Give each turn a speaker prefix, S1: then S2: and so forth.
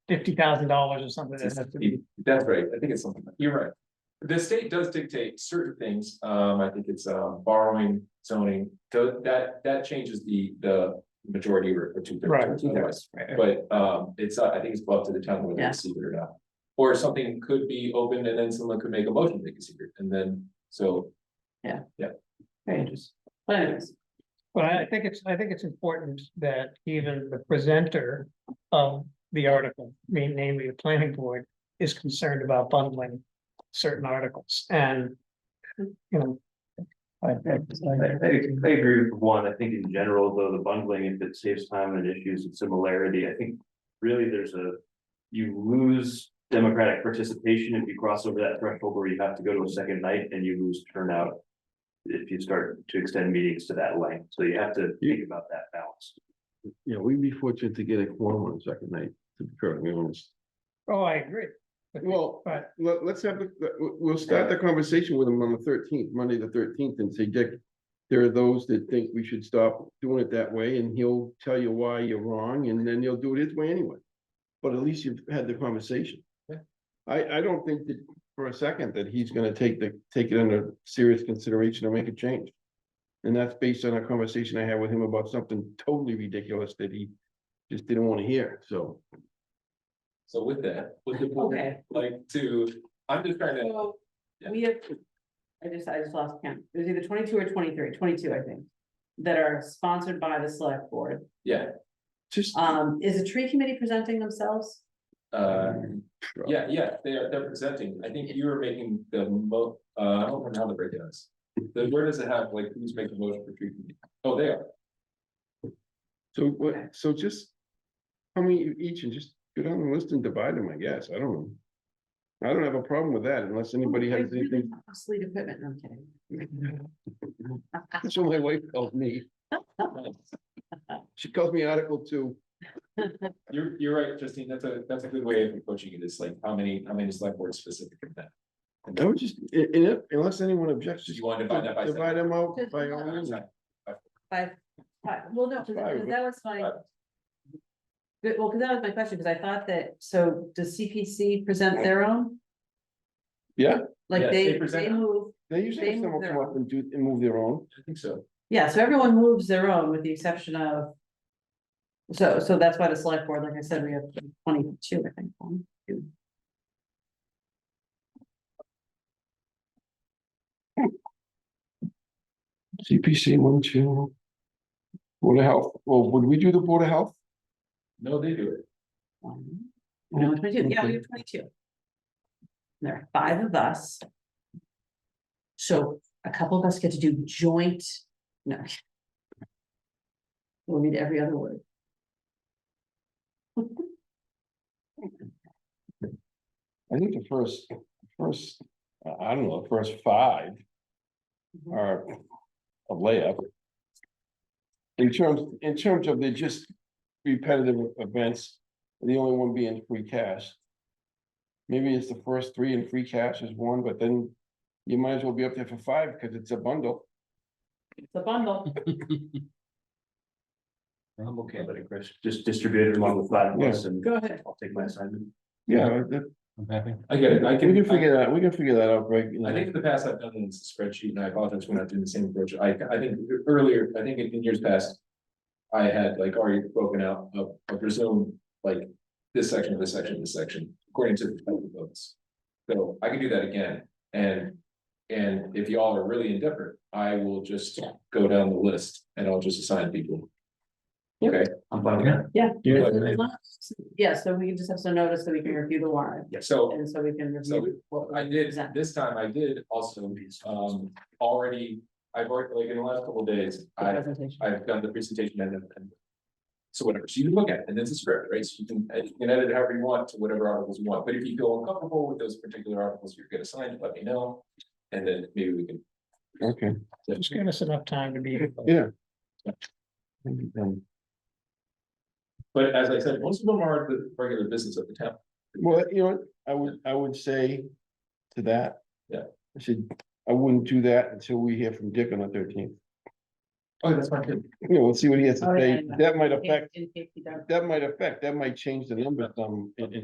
S1: fifty thousand dollars or something that has to be.
S2: That's right, I think it's something, you're right. The state does dictate certain things, um, I think it's, uh, borrowing, zoning, tho- that, that changes the, the majority or two
S1: Right.
S2: thirds. Otherwise,
S1: Right.
S2: but, um, it's, uh, I think it's up to the town whether
S3: Yeah.
S2: they see it or not. Or something could be opened and then someone could make a motion to consider it, and then, so,
S3: Pages. Plans.
S1: But I think it's, I think it's important that even the presenter of the article, ma- namely the planning board, is concerned about bundling certain articles and, you know. I,
S4: I, I,
S1: I-
S4: I agree with one, I think in general, though, the bungling, if it saves time and issues of similarity, I think really there's a. You lose democratic participation if you cross over that threshold where you have to go to a second night and you lose turnout. If you start to extend meetings to that length, so you have to think about that balance.
S5: Yeah, we'd be fortunate to get a quorum on the second night, to be perfectly honest.
S1: Oh, I agree. But-
S5: Well,
S1: But,
S5: let, us have, the- the- we'll- we'll start the conversation with them on the thirteenth, Monday the thirteenth, and say, Dick, there are those that think we should stop doing it that way, and he'll tell you why you're wrong, and then he'll do it his way anyway. But at least you've had the conversation.
S2: Yeah.
S5: I, I don't think that for a second that he's gonna take the, take it under serious consideration or make a change. And that's based on a conversation I had with him about something totally ridiculous that he just didn't wanna hear, so.
S2: so with that, with the board,
S3: Okay,
S2: like, to, I'm just trying to,
S3: so we have, I just, I just lost count. It was either twenty-two or twenty-three, twenty-two, I think. That are sponsored by the select board.
S2: yeah,
S5: Just.
S3: Um, is the tree committee presenting themselves?
S2: uh, yeah, yeah, they're, they're presenting, I think you were making the mo, uh, I don't remember how the breakdown is. The, where does it have, like, who's making the motion for tree committee? Oh, they are,
S5: So what,
S3: Okay.
S5: so just. How many each and just go down the list and divide them, I guess, I don't know. I don't have a problem with that
S3: Oh,
S5: unless anybody has anything,
S3: Obsolete equipment, no, I'm kidding.
S5: that's what my wife calls me, she calls me Article Two.
S2: you're, you're right, Justine, that's a, that's a good way of approaching it, is like, how many, how many select boards specific in that?
S5: I would just, i- in- unless anyone objects,
S2: Do
S5: just
S2: you want to divide that by?
S5: divide them out
S3: Just
S5: by all
S3: divide.
S5: means.
S3: Five, five, Uh, well, no, because
S5: Five.
S3: that was my.
S2: Five.
S3: But, well, because that was my question, because I thought that, so does CPC present their own?
S5: Yeah.
S3: Like
S2: Yes,
S3: they,
S2: they present-
S3: they move,
S5: They usually
S3: They
S5: have
S3: move
S5: someone
S3: their
S5: come up
S3: own.
S5: and do, and move their own,
S2: I think so.
S3: yeah, so everyone moves their own with the exception of. So, so that's why the select board, like I said, we have twenty-two, I think, one, two.
S5: CPC one, two. Board of Health, well, would we do the Board of Health?
S2: No, they do it.
S3: one. No, twenty-two, yeah, we have twenty-two. There are five of us. So a couple of us get to do joint, no. We'll read every other word.
S5: I think the first, first, uh, I don't know, the first five. are a layup. In terms, in terms of the just repetitive events, the only one being free cash. Maybe it's the first three and free cash is one, but then you might as well be up there for five because it's a bundle.
S3: It's a bundle,
S4: I'm okay. But Chris, just distribute it along the five
S5: Yeah.
S4: lists and
S3: go ahead,
S4: I'll take my assignment.
S5: Yeah, that-
S4: I'm happy.
S2: I get it, I
S5: we
S2: can.
S5: can figure that, we can figure that out, right? you
S2: I
S5: know.
S2: think in the past I've done it in a spreadsheet and I apologize for not doing the same approach. I, I think earlier, I think in years past. I had like already broken out of, of presume, like this section, this section, this section, according to the type of votes. So I can do that again and, and if y'all are really indifferent, I will just go down the list and I'll just assign people. Okay,
S4: I'm fine with that.
S2: Yeah.
S3: yeah, so we can just have some notice that we can review the warrant,
S2: so
S3: and so we can
S2: So
S3: review.
S2: well, I did, this time I did also, um, already, I've worked like in the last couple of days,
S3: the
S2: I,
S3: presentation.
S2: I've done the presentation and then. and- So whatever, so you can look at it and it's a script, right? So you can, and you can edit it however you want to whatever articles you want, but if you feel uncomfortable with those particular articles you're gonna sign, let me know. And then maybe we can,
S5: Okay.
S1: Just give us enough time to be.
S5: Yeah. Um,
S2: but as I said, most of them are the regular business of the town.
S5: Well, you know, what, I would, I would say to that.
S2: Yeah.
S5: I said, I wouldn't do that until we hear from Dick on the thirteenth.
S2: Oh, that's fine too.
S5: You know, we'll see what he has to
S3: Oh, yeah,
S5: say.
S3: I know.
S5: That might
S3: In
S5: affect,
S3: in case he does.
S5: that might affect, that might change the number some in, in